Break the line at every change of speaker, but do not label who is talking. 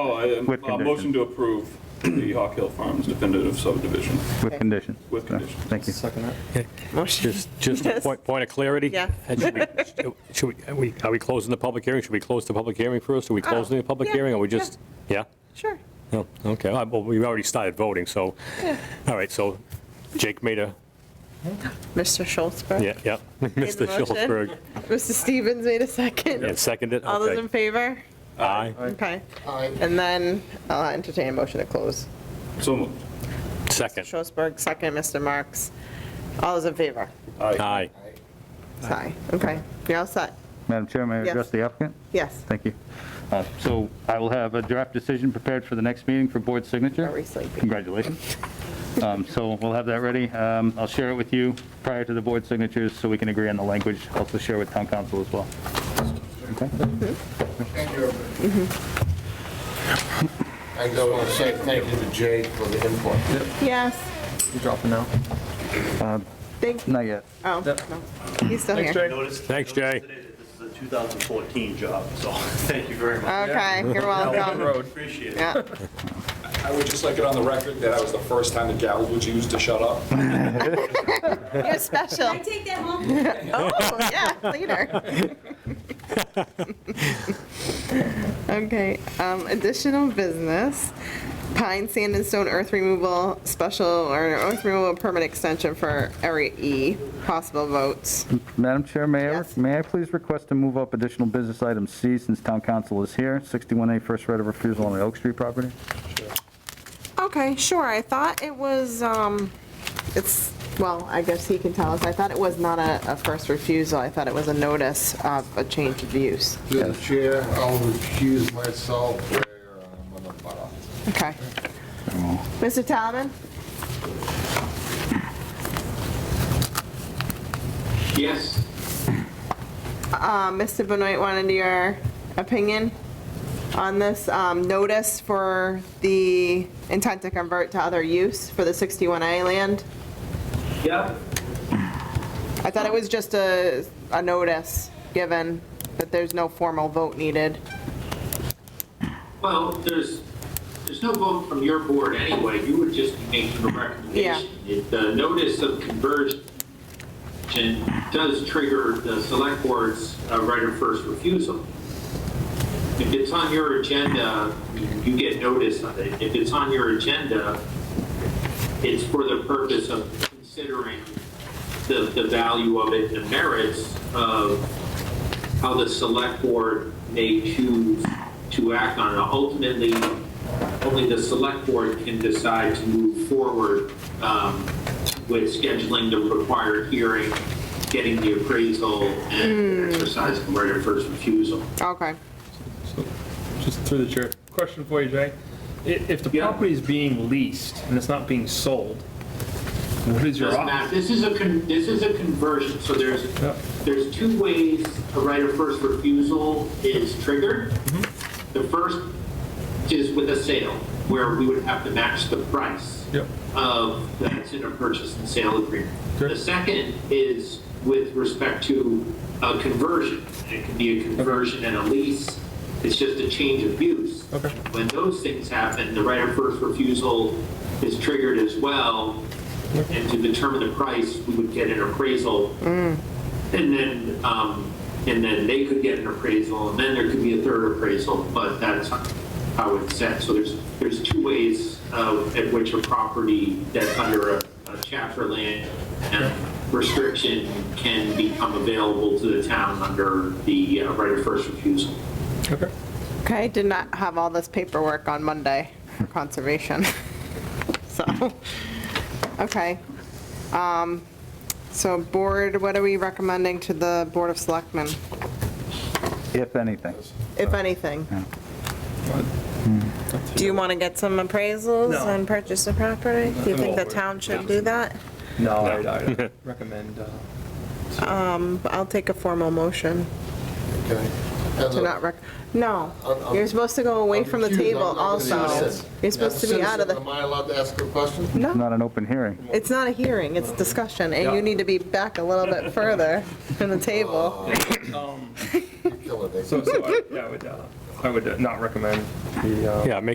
Oh, I,
With
uh, motion
conditions.
to approve the Hawk Hill Farms definitive subdivision.
With conditions.
With conditions.
Thank you.
Second that?
Motion.
Just, just a
Yes.
point, point of clarity?
Yeah.
And Should we- should we, are we- are we closing the public hearing? Should we close the public hearing first? Are we
Oh,
closing the public
yeah,
hearing, or we just, yeah?
Sure.
No, okay, All right, well, we've already started voting, so,
Yeah.
all right, so Jake made a,
Mr. Schultzberg.
yeah, yeah,
made the
Mr.
motion.
Schultzberg,
Mr. Stevens made a
and
second.
seconded,
All those in
okay.
favor?
Aye,
Okay. And then I'll entertain a motion to close.
So moved.
second,
Schultzberg, second, Mr. Marks. All those in favor?
Aye.
aye.
Aye. Okay. You're all set?
Madam Chair, may I
Yes.
address the applicant?
Yes.
Thank you. Uh, So I will have a draft decision prepared for the next meeting for board signature.
Are we sleeping?
Congratulations. Um, So we'll have that ready. Um, I'll share it with you prior to the board signatures so we can agree on the language. Also share with town council as well. Okay?
Thank you. I just want to say thank you to Jay for the input.
Yes.
You dropping now?
Thank,
Not yet.
oh, no. He's still here.
Noticed- noticed
Thanks, Jay.
today that This is a 2014 job, so thank you very much.
Okay, you're welcome.
Appreciate it.
Yeah.
I would just like it on the record that I was the first time the gavel was used to shut up.
You're special.
I take that home?
Oh, yeah, later. Okay, um, additional business, pine, sand, and stone earth removal special, or earth removal permit extension for area E, possible votes.
Madam Chair, may I,
Yes.
may I please request to move up additional business item C since town council is here? 61A first right of refusal on the Oak Street property?
Okay, sure, I thought it was, um, it's, well, I guess he can tell us, I thought it was not a, a first refusal, I thought it was a notice of a change of use.
Through the chair, I'll recuse myself where I'm on the bottom.
Okay. Mr. Talman?
Yes.
Um, Mr. Benoit wanted your opinion on this um, notice for the intent to convert to other use for the 61A land.
Yeah.
I thought it was just a, a notice, given that there's no formal vote needed.
Well, there's, there's no vote from your board anyway, you would just be making a recommendation. It- The notice of conversion does trigger the select board's uh, right of first refusal. If it's on your agenda, you get notice of it. If it's on your agenda, it's for the purpose of considering the, the value of it and the merits of how the select board may choose to act on it. Ultimately, only the select board can decide to move forward um, with scheduling the required hearing, getting the appraisal, and exercising the right of first refusal.
Okay.
So, Just through the chair, question for you, Jay. I- If the
Yeah.
property is being leased and it's not being sold, what is your
Doesn't matter.
option?
This is a, con- this is a conversion, so there's,
Yeah.
there's two ways a right of first refusal is triggered.
Mm-hmm.
The first is with a sale, where we would have to match the price
Yep.
of, that's in a purchase and sale agreement.
Sure.
The second is with respect to a conversion. It can be a conversion and a lease, it's just a change of use.
Okay.
When those things happen, the right of first refusal is triggered as well. And to determine the price, we would get an appraisal. And then, um, and then they could get an appraisal, and then there could be a third appraisal, but that's how it's set. So there's, there's two ways uh, at which a property that's under a a chapter land and restriction can become available to the town under the uh, right of first refusal.
Okay.
Okay, did not have all this paperwork on Monday for conservation. So, okay. Um, So board, what are we recommending to the Board of Selectmen,
If anything.
if anything? Do you want to get some appraisals
No.
and purchase the property? Do you think the town should do that?
No, I I recommend, uh,
I'll take a formal motion
Okay. As
to
a-
not rec, no.
I'm- I'm-
You're supposed to go away
I'm
from the
recused.
table
I'm not gonna be a
also.
citizen.
You're supposed to be
As a
out of
citizen,
the,
Am I allowed to ask a question?
It's not an open hearing.
it's not a hearing, it's discussion, and you need to be back a little bit further from the table.
Um,
You eh? killing me.
So, so I- yeah, I would, uh,
I would not recommend the, uh,
Yeah, make